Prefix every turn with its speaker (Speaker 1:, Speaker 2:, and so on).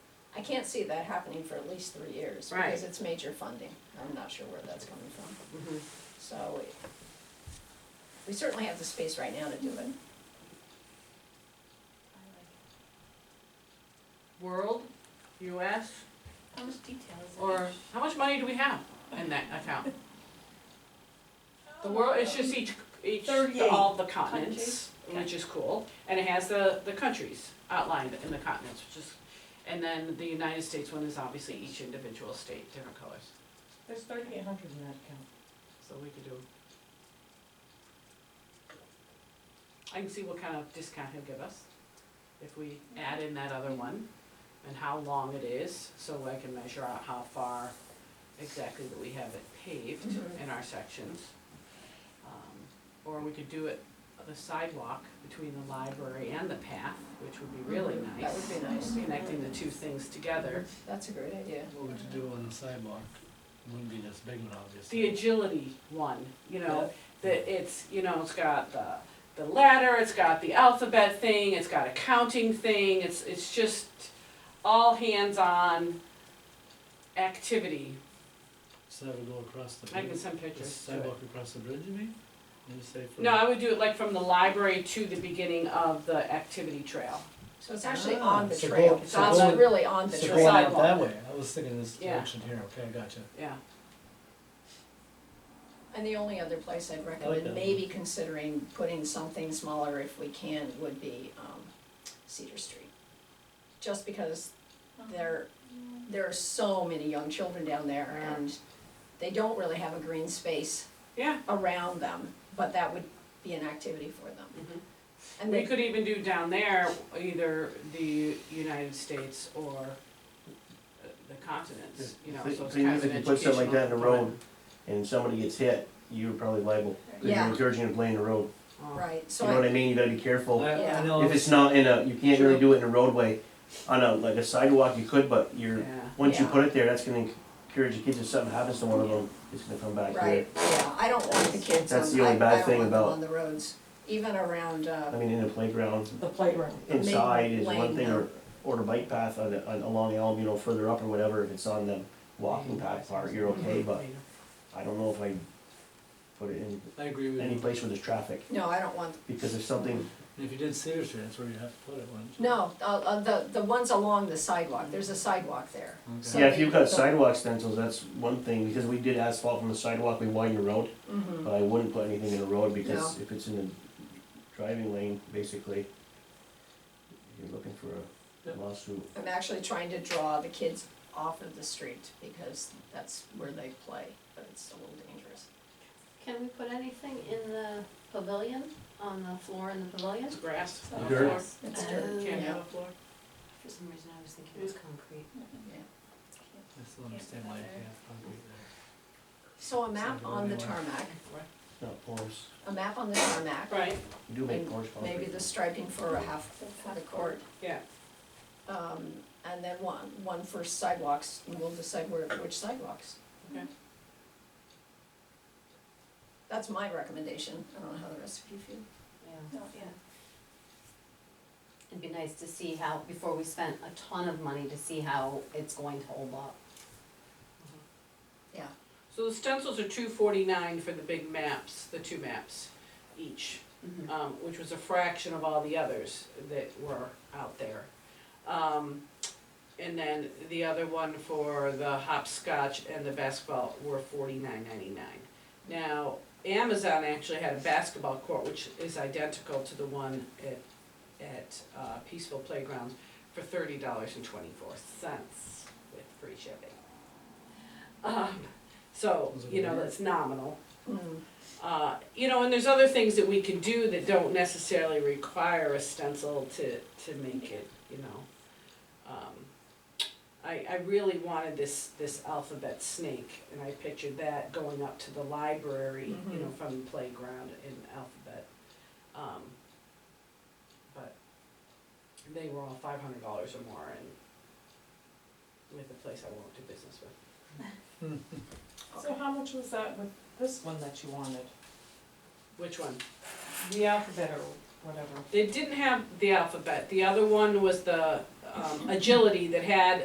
Speaker 1: I can't see that happening for at least three years,
Speaker 2: Right.
Speaker 1: because it's major funding, I'm not sure where that's coming from.
Speaker 2: Mhm.
Speaker 1: So we- we certainly have the space right now to do it.
Speaker 2: World, US,
Speaker 3: How much detail is in
Speaker 2: or
Speaker 3: each?
Speaker 2: how much money do we have in that account? The world, it's just each, each, the- all the continents, which is cool, and it has the, the countries outlined in the continents, which is, and then the United States one is obviously each individual state, different colors,
Speaker 4: There's thirty-eight hundred in that account.
Speaker 2: so we could do. I can see what kind of discount he'll give us, if we add in that other one, and how long it is, so I can measure out how far exactly that we have it paved
Speaker 1: Mhm.
Speaker 2: in our sections. Um, Or we could do it on the sidewalk between the library and the path, which would be really nice.
Speaker 1: Mm-hmm. That would be nice.
Speaker 2: Connecting the two things together.
Speaker 1: That's a great idea.
Speaker 5: What would you do on the sidewalk? Wouldn't be this big one, obviously.
Speaker 2: The agility one, you know, that it's, you know, it's got the, the ladder, it's got the alphabet thing, it's got a counting thing, it's, it's just all hands-on activity.
Speaker 5: So that would go across the
Speaker 2: I can
Speaker 5: bridge,
Speaker 2: send
Speaker 5: the
Speaker 2: pictures to it.
Speaker 5: sidewalk across the bridge, you mean? And you say from.
Speaker 2: No, I would do it like from the library to the beginning of the activity trail.
Speaker 1: So it's actually
Speaker 5: Ah,
Speaker 1: on the
Speaker 5: so
Speaker 1: trail,
Speaker 5: go-
Speaker 1: it's
Speaker 2: so go-
Speaker 1: on, really on the
Speaker 5: So
Speaker 1: trail.
Speaker 5: going out
Speaker 2: sidewalk.
Speaker 5: that way, I was thinking this
Speaker 2: Yeah.
Speaker 5: direction here, okay, I gotcha.
Speaker 2: Yeah,
Speaker 1: And the only other place I'd
Speaker 5: that.
Speaker 1: recommend maybe considering putting something smaller if we can would be um, Cedar Street. Just because there, there are so many young children down there
Speaker 2: Yeah.
Speaker 1: and they don't really have a green space
Speaker 2: yeah.
Speaker 1: around them, but that would be an activity for them.
Speaker 6: Mm-hmm.
Speaker 1: And
Speaker 2: We
Speaker 1: they,
Speaker 2: could even do down there, either the United States or uh, the continents, you know,
Speaker 6: Thing-
Speaker 2: so it's
Speaker 6: thing
Speaker 2: kind
Speaker 6: is,
Speaker 2: of an educational.
Speaker 6: if you put something like that in the road
Speaker 2: component.
Speaker 6: and somebody gets hit, you're probably liable. 'Cause
Speaker 1: Yeah.
Speaker 6: You're encouraging them to play in the road.
Speaker 2: Oh.
Speaker 1: right, so
Speaker 6: You know what
Speaker 1: I,
Speaker 6: I mean? You gotta be
Speaker 5: I,
Speaker 6: careful.
Speaker 5: I
Speaker 1: Yeah.
Speaker 5: know,
Speaker 6: Oh, If it's not in a, you can't really do it in a roadway. On a, like a sidewalk, you could, but you're,
Speaker 2: Yeah.
Speaker 6: once you
Speaker 1: Yeah.
Speaker 6: put it there, that's gonna encourage the kids. If something happens to one of them, it's gonna come back here.
Speaker 1: right, yeah, I don't want the kids on,
Speaker 6: That's the
Speaker 1: I, I
Speaker 6: only bad
Speaker 1: don't
Speaker 6: thing
Speaker 1: want them
Speaker 6: about-
Speaker 1: on the roads, even around,
Speaker 6: I
Speaker 1: uh,
Speaker 6: mean, in the playground,
Speaker 4: The playground.
Speaker 6: inside is
Speaker 1: lane,
Speaker 6: one thing,
Speaker 1: no.
Speaker 6: or, or the bike path on, the- on, along Elm, you know, further up or whatever, if it's on the walking path part, you're okay, but I don't know if I put it in
Speaker 5: I agree with
Speaker 6: any
Speaker 5: you,
Speaker 6: place where there's traffic,
Speaker 1: no, I don't want,
Speaker 6: because if something
Speaker 5: And if you did Cedar Street, that's where you'd have to put it, wouldn't you?
Speaker 1: no, uh, uh, the, the ones along the sidewalk, there's a sidewalk there.
Speaker 5: Okay.
Speaker 1: So
Speaker 6: Yeah, if
Speaker 1: they-
Speaker 6: you've got
Speaker 1: the-
Speaker 6: sidewalk stencils, that's one thing, because we did asphalt from the sidewalk, we widened the road,
Speaker 1: Mhm.
Speaker 6: but I wouldn't put anything in the road, because
Speaker 1: No.
Speaker 6: if it's in the driving lane, basically, you're looking for a
Speaker 5: Yep.
Speaker 6: lawsuit.
Speaker 1: I'm actually trying to draw the kids off of the street because that's where they play, but it's a little dangerous.
Speaker 3: Can we put anything in the pavilion, on the floor in the pavilion?
Speaker 2: It's grass.
Speaker 6: The
Speaker 2: no
Speaker 6: dirt.
Speaker 2: floor.
Speaker 1: It's dirt.
Speaker 2: Can't
Speaker 3: Oh.
Speaker 1: Yeah.
Speaker 2: have a floor.
Speaker 3: For some reason, I was thinking it was concrete.
Speaker 5: I still understand why you can't have concrete there.
Speaker 1: So a map
Speaker 5: Sounds
Speaker 1: on the
Speaker 5: really well.
Speaker 1: tarmac,
Speaker 6: Not porous,
Speaker 1: a map on the tarmac,
Speaker 2: Right,
Speaker 6: you do make
Speaker 1: And
Speaker 6: porous concrete.
Speaker 1: maybe the striping for a half, half a court.
Speaker 2: yeah.
Speaker 1: Um, and then one, one for sidewalks, and we'll decide where, which sidewalks.
Speaker 2: Okay.
Speaker 1: That's my recommendation, I don't know how the rest of you feel.
Speaker 3: Yeah. It'd be nice to see how, before we spent a ton of money, to see how it's going to hold up.
Speaker 1: Yeah,
Speaker 2: So the stencils are two forty-nine for the big maps, the two maps each. um, which was a fraction of all the others that were out there. Um, and then the other one for the hopscotch and the basketball were forty-nine ninety-nine. Now, Amazon actually had a basketball court, which is identical to the one at, at uh, Peaceful Playgrounds for thirty dollars and twenty-four cents with free shipping. Um, so,
Speaker 5: Was it
Speaker 2: you know,
Speaker 5: weird?
Speaker 2: that's nominal.
Speaker 1: Hmm.
Speaker 2: Uh, you know, and there's other things that we can do that don't necessarily require a stencil to, to make it, you know. Um, I, I really wanted this, this alphabet snake, and I pictured that going up to the library, you know, from the playground in alphabet. Um, but they were all five hundred dollars or more and with a place I won't do business with.
Speaker 4: So how much was that with this one that you wanted?
Speaker 2: Which one?
Speaker 4: The alphabet or whatever?
Speaker 2: They didn't have the alphabet. The other one was the um, agility that had